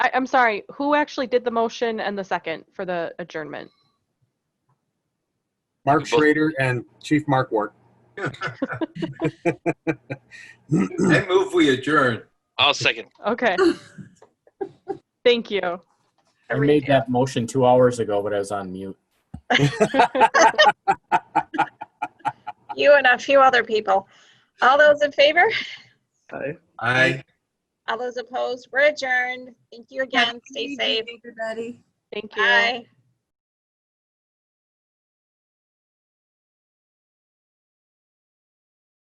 I, I'm sorry, who actually did the motion and the second for the adjournment? Mark Both- Schrader and Chief Mark Ward. I move we adjourn. I'll second. Okay. Thank you. I made that motion two hours ago, but I was on mute. You and a few other people. All those in favor? Aye. All those opposed? We're adjourned. Thank you again. Happy Stay New Year, safe. Everybody. Thank you. Bye.